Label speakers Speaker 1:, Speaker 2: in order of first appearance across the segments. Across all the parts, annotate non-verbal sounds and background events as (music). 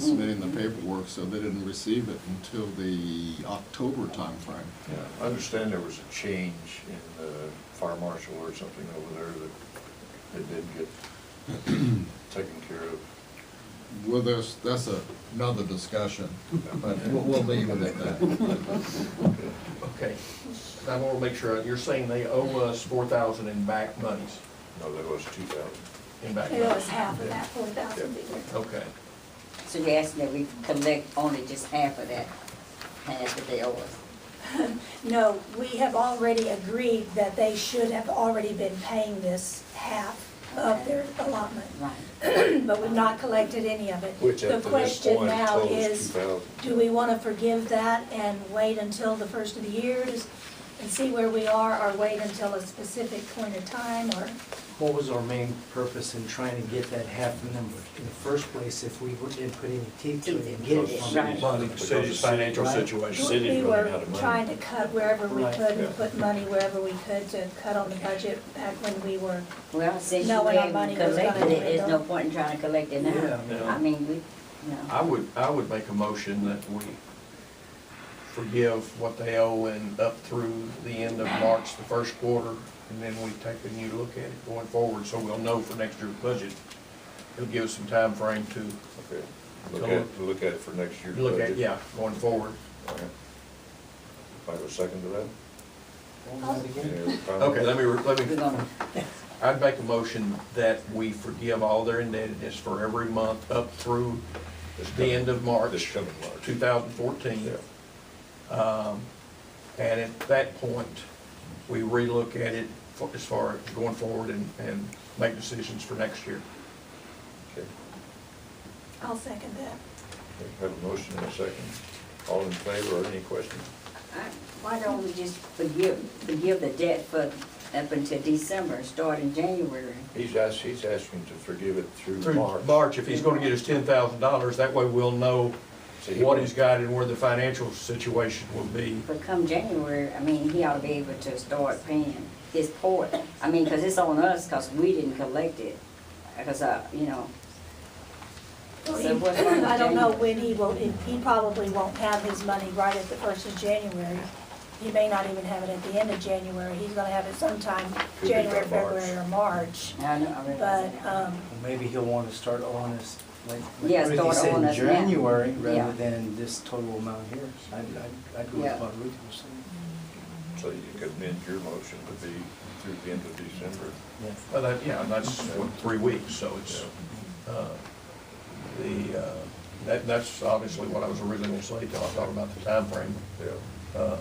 Speaker 1: submitting the paperwork, so they didn't receive it until the October timeframe.
Speaker 2: Yeah, I understand there was a change in the fire marshal or something over there that it did get
Speaker 3: (clears throat)
Speaker 2: taken care of.
Speaker 1: Well, there's, that's a- another discussion, but we'll, we'll leave it at that.
Speaker 3: Okay, I want to make sure, you're saying they owe us four thousand in back monies,
Speaker 2: No, that was two thousand.
Speaker 3: in back
Speaker 4: It was
Speaker 3: monies?
Speaker 4: half of that four thousand
Speaker 3: Okay,
Speaker 5: So you're asking that we collect only just half of that, half that they owe us?
Speaker 4: No, we have already agreed that they should have already been paying this half of their allotment,
Speaker 5: Right.
Speaker 4: but we've not collected any of it.
Speaker 2: Which up
Speaker 4: The
Speaker 2: to this
Speaker 4: question
Speaker 2: point
Speaker 4: now
Speaker 2: totals two
Speaker 4: is,
Speaker 2: thousand.
Speaker 4: do we want to forgive that and wait until the first of the year to s- and see where we are, or wait until a specific point in time, or,
Speaker 6: What was our main purpose in trying to get that half number? In the first place, if we didn't put any teeth to it and get it from
Speaker 5: Right.
Speaker 6: the
Speaker 2: Because the city's financial
Speaker 6: Right.
Speaker 2: situation.
Speaker 4: we
Speaker 2: City's running out
Speaker 4: were
Speaker 2: of money.
Speaker 4: trying to cut wherever we
Speaker 6: Right,
Speaker 4: could
Speaker 2: yeah.
Speaker 4: and put money wherever we could to cut on the budget back when we were
Speaker 5: Well, since you
Speaker 4: No, when our
Speaker 5: haven't
Speaker 4: money was
Speaker 5: collected
Speaker 4: gone,
Speaker 5: it, there's no
Speaker 4: we
Speaker 5: point in trying to collect it
Speaker 6: Yeah.
Speaker 5: now. I mean, we, no.
Speaker 3: I would, I would make a motion that we forgive what they owe and up through the end of March, the first quarter, and then we take a new look at it going forward, so we'll know for next year's budget. It'll give us some time frame to
Speaker 2: Okay, look at, to look at it for next year's budget.
Speaker 3: look at, yeah, going forward.
Speaker 2: All right. I have a second to that?
Speaker 6: Hold that
Speaker 2: Any other
Speaker 6: again.
Speaker 2: comments?
Speaker 3: Okay, let me, re- let me
Speaker 5: We're gonna,
Speaker 3: I'd make a motion that we forgive all their indebtedness for every month up through
Speaker 2: This
Speaker 3: the
Speaker 2: coming-
Speaker 3: end of March,
Speaker 2: This coming March.
Speaker 3: 2014. Um, And at that point, we relook at it fo- as far as going forward and, and make decisions for next year.
Speaker 2: Okay.
Speaker 4: I'll second that.
Speaker 2: We Have a motion and a second. All in favor or any questions?
Speaker 5: I- why don't we just forgive, forgive the debt for up until December and start in January?
Speaker 2: He's asked, he's asking to forgive it through
Speaker 3: Through
Speaker 2: March.
Speaker 3: March, if he's gonna get us $10,000, that way we'll know
Speaker 2: So he
Speaker 3: what
Speaker 2: won't-
Speaker 3: he's got and where the financial situation will be.
Speaker 5: But come January, I mean, he ought to be able to start paying his part. I mean, 'cause it's on us, 'cause we didn't collect it, 'cause, uh, you know. So
Speaker 4: (coughs)
Speaker 5: what's wrong with
Speaker 4: I don't know
Speaker 5: January?
Speaker 4: when he will, if- he probably won't have his money right at the first of January. He may not even have it at the end of January, he's gonna have it sometime,
Speaker 2: Could be by
Speaker 4: January,
Speaker 2: March.
Speaker 4: February, or March.
Speaker 5: I know, I realize
Speaker 4: But,
Speaker 5: that.
Speaker 4: um,
Speaker 6: Well, Maybe he'll want to start on us, like like
Speaker 5: Yeah,
Speaker 6: Ruthie
Speaker 5: start
Speaker 6: said,
Speaker 5: on
Speaker 6: in
Speaker 5: us now.
Speaker 6: January,
Speaker 5: Yeah.
Speaker 6: rather than this total amount here. I'd, I'd- I'd go
Speaker 5: Yeah.
Speaker 6: with what Ruthie was saying.
Speaker 2: So you could amend your motion to be through the end of December.
Speaker 6: Yeah.
Speaker 3: But that, yeah, and that's, what, three weeks, so it's, uh, the, uh, that, that's obviously what I was originally gonna say, till I thought about the timeframe.
Speaker 2: Yeah.
Speaker 3: Uh,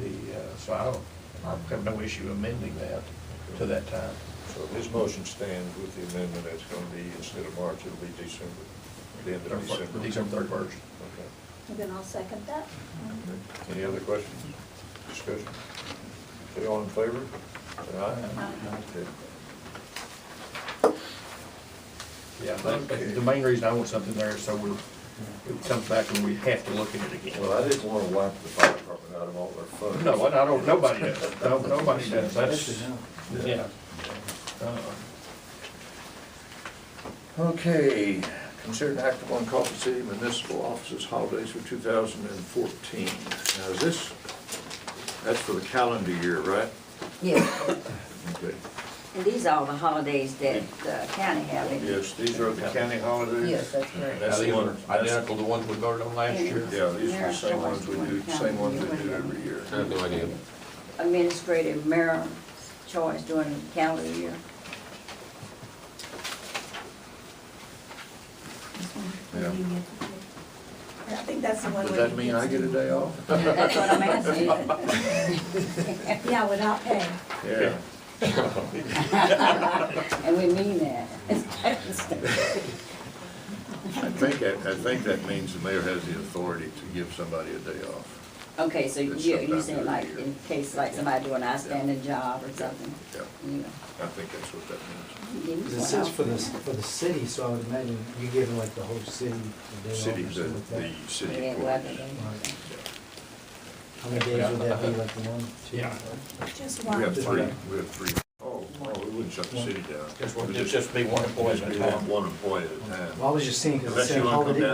Speaker 3: The, uh, so I don't, I have no issue amending that to that time.
Speaker 2: So his motion stands with the amendment, it's going to be, instead of March, it'll be December, the end of December.
Speaker 3: December third version.
Speaker 2: Okay.
Speaker 4: then I'll second that.
Speaker 2: Any other questions, discussion? Okay, all in favor? Say aye. Okay.
Speaker 3: Yeah, but the main reason I want something there is so we're, it comes back and we have to look at it again.
Speaker 2: Well, I didn't want to wipe the fire department out of all their funds.
Speaker 3: No, I don't, nobody does, no, nobody does,
Speaker 6: That's
Speaker 3: that's,
Speaker 6: enough.
Speaker 3: yeah. Uh,
Speaker 2: Okay, consider an act upon Coffee City Municipal Offices holidays for 2014. Now, is this, that's for the calendar year, right?
Speaker 5: Yeah,
Speaker 2: Okay.
Speaker 5: and these are all the holidays that the county have. in-
Speaker 2: Yes, these are the county holidays?
Speaker 5: Yes, that's correct.
Speaker 2: That's the one, that's-
Speaker 3: Identical to the ones we voted on last year.
Speaker 2: yeah, these are the same ones we do, same ones we do every year.
Speaker 1: I have no idea.
Speaker 5: administrative mayor choice during the calendar year.
Speaker 2: Yeah.
Speaker 4: I think that's the one.
Speaker 2: Does
Speaker 4: way
Speaker 2: that
Speaker 4: he
Speaker 2: mean
Speaker 4: gets
Speaker 2: I get a
Speaker 4: it.
Speaker 2: day off?
Speaker 5: That's what I'm
Speaker 2: (laughs)
Speaker 5: asking.
Speaker 4: Yeah, without pay.
Speaker 2: Yeah.
Speaker 5: And we mean that.
Speaker 2: I think, that- I think that means the mayor has the authority to give somebody a day off.
Speaker 5: (laughs) Okay, so you,
Speaker 2: It's
Speaker 5: you
Speaker 2: sometime
Speaker 5: saying like,
Speaker 2: during the year.
Speaker 5: in case like somebody doing an outstanding job or something,
Speaker 2: Yeah,
Speaker 5: you know.
Speaker 2: I think that's what that means.
Speaker 5: you give us
Speaker 6: 'Cause It
Speaker 5: one
Speaker 6: says
Speaker 5: off.
Speaker 6: for the, for the city, so I would imagine you give like the whole city a day off or
Speaker 2: City, the,
Speaker 6: something like that.
Speaker 2: the city.
Speaker 5: Yeah, well,
Speaker 2: employees.
Speaker 6: Right.
Speaker 2: Yeah.
Speaker 6: How many days would that be, like the one? two,
Speaker 3: Yeah.
Speaker 6: three?
Speaker 4: Just
Speaker 2: We
Speaker 4: one.
Speaker 2: have three, we have three. Oh, oh, it would wouldn't shut the city down.
Speaker 3: Just, it'd just be one employee at a time.
Speaker 2: One employee at a time.
Speaker 6: Well, I was just seeing, because it
Speaker 2: Unless
Speaker 6: said
Speaker 2: you wanna come
Speaker 6: holiday
Speaker 2: down